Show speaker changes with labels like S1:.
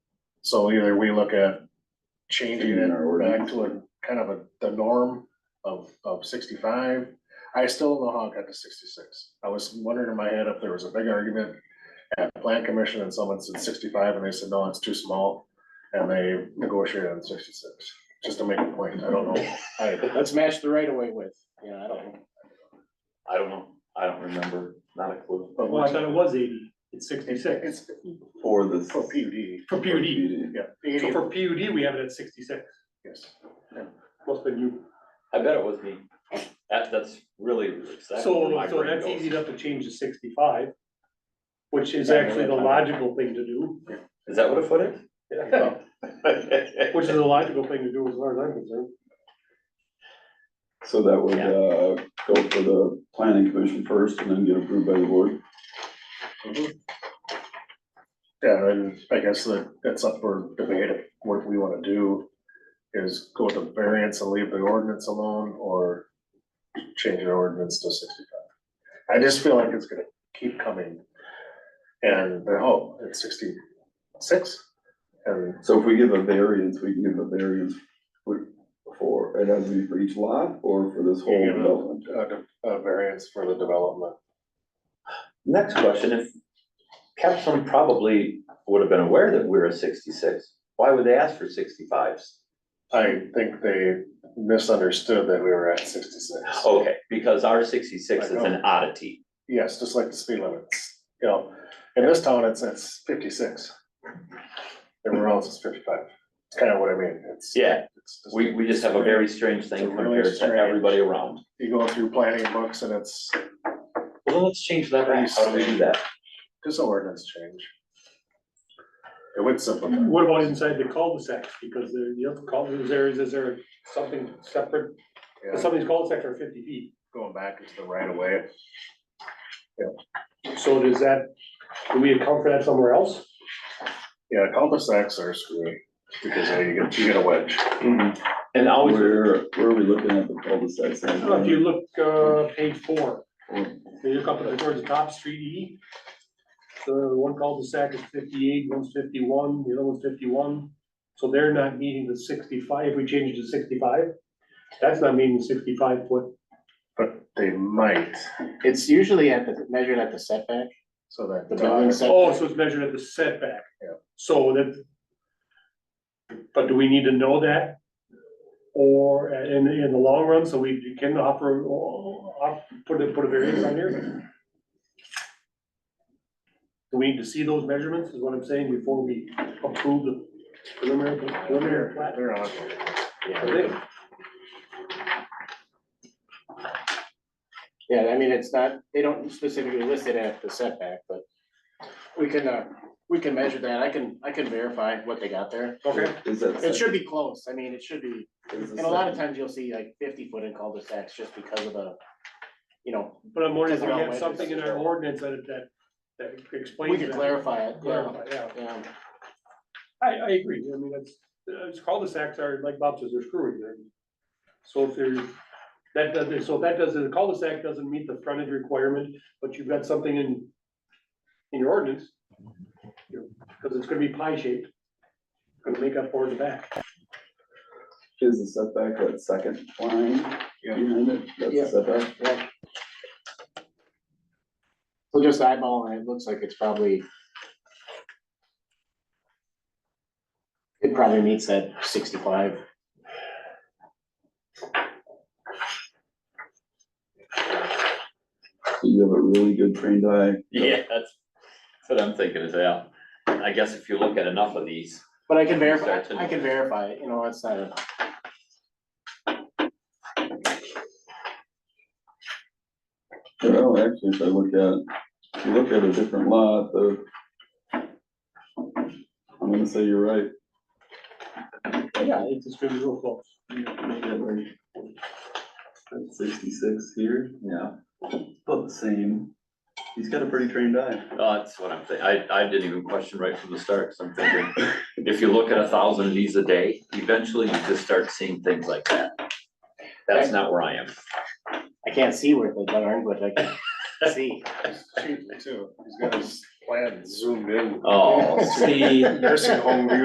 S1: So either we look at changing it back to a kind of a, the norm of, of sixty-five. I still don't know how it got to sixty-six. I was wondering in my head if there was a big argument at the plan commission and someone said sixty-five and they said, no, it's too small. And they negotiated on sixty-six, just to make a point. I don't know. I,
S2: Let's match the right away with, you know, I don't know.
S3: I don't know, I don't remember, not a clue.
S4: Oh,
S5: Well, I thought it was eighty, it's sixty-six.
S1: it's
S3: For the.
S1: for PUD,
S5: For
S3: Oh,
S5: PUD,
S1: yeah,
S5: so
S1: eighty,
S5: for PUD, we have it at sixty-six,
S1: yes.
S5: what's been you,
S3: I bet it was me. That, that's really exactly where
S5: so,
S3: my
S5: so
S3: brain
S5: that's
S3: goes.
S5: easy enough to change to sixty-five. Which is
S3: Yeah, I know
S5: actually the
S3: that.
S5: logical thing to do,
S3: Is that what a foot is?
S5: which is the logical thing to do as far as I'm concerned.
S4: So that would, uh, go for the planning commission first and then get approved by the board.
S1: Mhm. Yeah, and I guess that, that's up for debate, if what we wanna do is go with the variance and leave the ordinance alone, or change the ordinance to sixty-five. I just feel like it's gonna keep coming, and, then, oh, it's sixty-six, and
S4: So if we give a variance, we can give a variance for, for- it has to be for each lot or for this whole
S1: Yeah.
S4: development.
S1: a, de- a variance for the development.
S3: Next question, if Capstone probably would have been aware that we're a sixty-six, why would they ask for sixty-fives?
S1: I think they misunderstood that we were at sixty-six.
S3: Okay, because our sixty-six is an oddity.
S1: Yes, just like the speed limits, you know, in this town, it's, it's fifty-six. Everywhere else is fifty-five, it's kind of what I mean, it's.
S3: Yeah,
S1: it's just-
S3: we, we just have a very strange thing
S1: It's a really
S3: compared to
S1: strange-
S3: everybody around.
S1: You go through planning books and it's,
S3: Well, then let's change that, right? how do we do that?
S1: just an ordinance change. It would simplify,
S5: What about inside the cul-de-sacs, because the, the other cul-de-sacs areas, is there something separate,
S1: yeah,
S5: some of these cul-de-sacs are fifty feet,
S1: going back into the right of way,
S5: so does that, do we account for that somewhere else?
S1: yeah, cul-de-sacs are screwy, because uh, you get, you get a wedge.
S3: And always,
S4: Where, where are we looking at the cul-de-sacs?
S5: I don't know, If you look, uh, page four,
S4: Mm.
S5: if you look up at- towards the top, street E. The one cul-de-sac is fifty-eight, one's fifty-one, the other one's fifty-one, so they're not meeting the sixty-five, if we change it to sixty-five. That's not meeting the sixty-five foot,
S1: But they might,
S2: It's usually at the, measured at the setback.
S1: so that.
S2: The building set-
S5: oh, so it's measured at the setback.
S1: Yeah.
S5: So that. But do we need to know that? Or in, in the long run, so we can offer, oh, op- put a, put a variance on here? Do we need to see those measurements, is what I'm saying, before we approve the preliminary, preliminary plat?
S1: They're on,
S3: yeah,
S5: I
S2: Yeah, I mean, it's not, they don't specifically list it at the setback, but we can, uh, we can measure that. I can, I can verify what they got there.
S5: Okay.
S4: Is that?
S2: It should be close. I mean, it should be,
S4: is the
S2: and a lot of
S4: sec-
S2: times you'll see like fifty foot in cul-de-sacs just because of the, you know,
S5: But I'm wondering if we
S2: Because
S5: have
S2: of
S5: something in our
S2: wedges.
S5: ordinance that, that, that explains
S2: we
S5: that.
S2: can clarify it. um, Yeah,
S5: Clarify, yeah.
S2: yeah.
S5: I, I agree, I mean, it's, it's cul-de-sacs are, like Bob says, they're screwy, they're, so if there's, that doesn't, so if that doesn't, the cul-de-sac doesn't meet the frontage requirement, but you've got something in, in your ordinance, you know, cause it's gonna be pie shaped, gonna make up for the back.
S4: Is the setback that second line
S1: Yeah.
S4: behind it? That's
S2: Yeah.
S4: the setback?
S2: Yeah. So just eyeballing, it it looks like it's probably. It probably meets that sixty-five.
S4: So You have a really good trained eye.
S3: yeah, that's, that's what I'm thinking as well. I guess if you look at enough of these,
S2: But I can verify,
S3: Start to-
S2: I can verify, it, you know, it's not a.
S4: Well, actually, if I look at, if you look at a different lot, the. I'm gonna say you're right.
S5: Yeah, it's, it's gonna be real close.
S4: Sixty-six here, yeah, about the same. He's got a pretty trained eye.
S3: Oh, That's what I'm thinking. I, I didn't even question right from the start, so I'm thinking, if you look at a thousand of these a day, eventually you just start seeing things like that. That's not where I am.
S2: I can't see where they are, but I can see.
S1: Shoot, me too, he's got his plan zoomed in.
S3: Oh, see,
S1: Nursing home view.